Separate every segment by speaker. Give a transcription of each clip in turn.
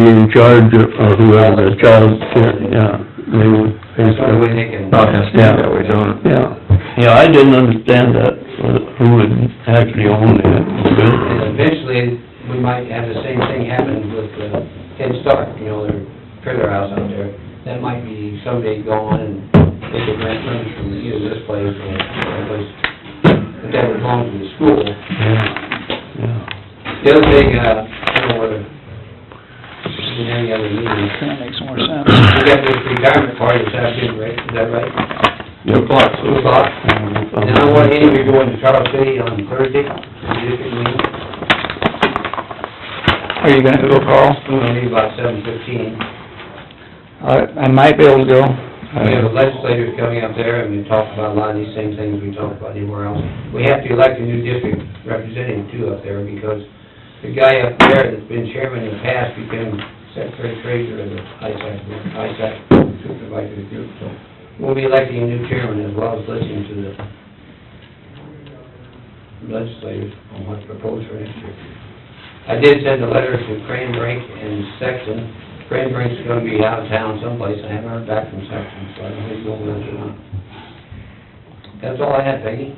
Speaker 1: be in charge of or whoever the child, yeah, they would pay
Speaker 2: That's
Speaker 1: for
Speaker 2: why we
Speaker 1: it.
Speaker 2: make it-
Speaker 3: Oh, it has to be
Speaker 1: Yeah.
Speaker 3: that way, don't it?
Speaker 1: Yeah, yeah, I didn't understand that, uh, who would actually own
Speaker 2: And
Speaker 1: it.
Speaker 2: eventually, we might have the same thing happen with uh, Head Start, you know, their trailer house out there. That might be someday gone and they could rent rooms from either this place or that place. But that would belong to the school.
Speaker 1: Yeah, yeah.
Speaker 2: The other thing, uh, I don't know whether, in any other meeting,
Speaker 4: That makes more sense.
Speaker 2: we got this retirement party this afternoon, right? Is that right?
Speaker 3: Two o'clock,
Speaker 2: Two o'clock? And I want any of you going to Charles City on Thursday, district meeting.
Speaker 4: Are you gonna go, Carl?
Speaker 2: I'm gonna leave about seven fifteen.
Speaker 4: I, I might be able to go. Uh,
Speaker 2: We have legislators coming up there, and we talk about a lot of these same things we talk about anywhere else. We have to elect a new district representative too up there, because the guy up there that's been chairman in the past became secretary treasurer of the ISAC, ISAC supervisory group, so we'll be electing a new chairman as well as listening to the legislators on what to propose for next year. I did send a letter to Cranbrink and Sexton, Cranbrink's gonna be out of town someplace, I haven't heard back from Sexton, so I don't know if he's going with us or not. That's all I had, Peggy.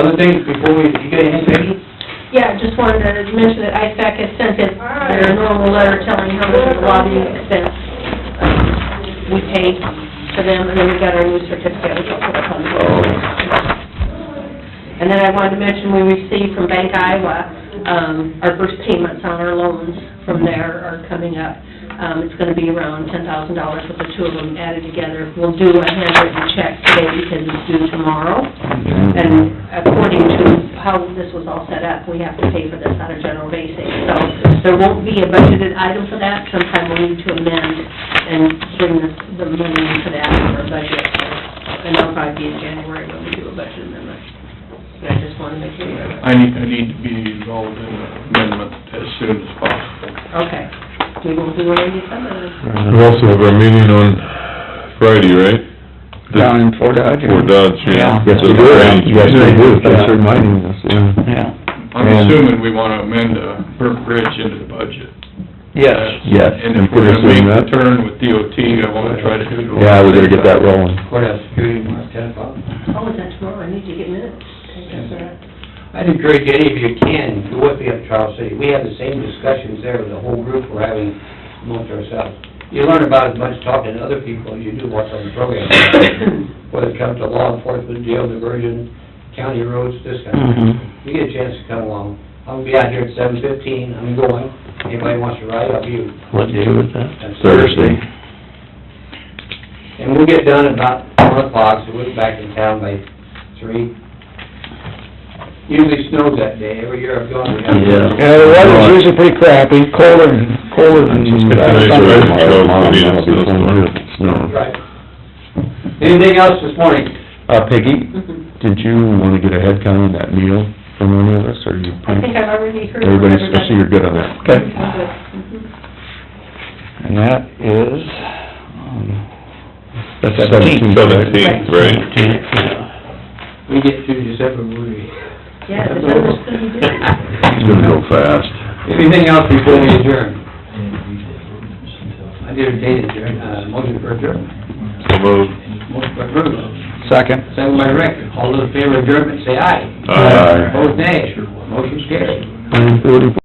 Speaker 2: Other things before we, you got anything, Peggy?
Speaker 5: Yeah, just wanted to mention that ISAC has sent it, their normal letter telling how much of the lobbying expense um, we paid to them, and then we got our new certificate, which I'll put up on the board. And then I wanted to mention, we received from Bank Iowa, um, our first payments on our loans from there are coming up. Um, it's gonna be around ten thousand dollars with the two of them added together. We'll do a handwritten check today because it's due tomorrow. And
Speaker 3: Mm-hmm.
Speaker 5: according to how this was all set up, we have to pay for this on a general basis. So there won't be a budgeted item for that. Sometime we'll need to amend and bring the, the money into that for a budget. And that'll probably be in January when we do a budget amendment. But I just wanna make you aware of that.
Speaker 6: I need, I need to be involved in the amendment as soon as possible.
Speaker 5: Okay. We will do it in December.
Speaker 3: Right.
Speaker 7: We also have our meeting on Friday, right?
Speaker 4: Down in Fort Dodge. or-
Speaker 7: For Dodge, yeah.
Speaker 4: Yeah. Yes, we do.
Speaker 7: Yes,
Speaker 3: they do. Thanks
Speaker 7: That's right.
Speaker 3: for reminding us, yeah.
Speaker 4: Yeah,
Speaker 6: I'm
Speaker 3: And-
Speaker 6: assuming we want to amend uh, Burke Bridge into the budget.
Speaker 4: yes.
Speaker 3: Yes,
Speaker 6: And
Speaker 3: and
Speaker 6: if
Speaker 3: put
Speaker 6: we're
Speaker 3: us
Speaker 6: going to make
Speaker 3: in
Speaker 6: the
Speaker 3: that.
Speaker 6: turn with DOT, I want to try to do it.
Speaker 3: Yeah, we gotta get that rolling.
Speaker 2: Courthouse security tomorrow, ten o'clock.
Speaker 5: Oh, is that tomorrow? I need to get minutes. Mm-hmm. Okay, that's all right.
Speaker 2: I'd encourage any of you can, go with me up to Charles City. We have the same discussions there with the whole group we're having amongst ourselves. You learn about as much talking to other people as you do what's on the program, whether it comes to law enforcement, jail diversion, county roads, this kind of thing.
Speaker 4: Mhm.
Speaker 1: Mm-hmm.
Speaker 2: If you get a chance to come along, I'll be out here at seven fifteen, I'm going. Anybody wants to ride, I'll be,
Speaker 1: What day was that?
Speaker 2: that's
Speaker 3: Thursday.
Speaker 2: And we'll get done about one o'clock, so we'll be back in town by three. Usually snows that day, every year I've gone, we have.
Speaker 3: Yeah.
Speaker 4: Yeah, the weather's usually pretty crappy, colder, and colder than...
Speaker 7: Today's
Speaker 3: Uh,
Speaker 7: already twelve, we'll be in snowstorm.
Speaker 3: Snow.
Speaker 2: Right. Anything else this morning?
Speaker 3: Uh, Peggy, did you wanna get a head count on that meal from any of us, or you?
Speaker 5: I think I've already heard from
Speaker 3: Everybody's,
Speaker 5: everybody.
Speaker 3: I see you're good on that.
Speaker 4: Okay.
Speaker 5: I'm good. Mhm.
Speaker 4: And that is, um,
Speaker 3: That's seventeen.
Speaker 7: Seventeenth, right?
Speaker 1: Yeah.
Speaker 2: We get through December, we...
Speaker 5: Yeah, December's gonna be good.
Speaker 3: It's gonna go fast.
Speaker 2: Anything else before we adjourn? I did a date adjourn, uh, motion for adjournment.
Speaker 7: So moved.
Speaker 2: Motion for adjournment.
Speaker 4: second.
Speaker 2: Second by Rick, all those in favor of adjournment, say aye.
Speaker 7: Aye.
Speaker 2: Opposed, nay. Motion's carried.
Speaker 1: Nine forty-four.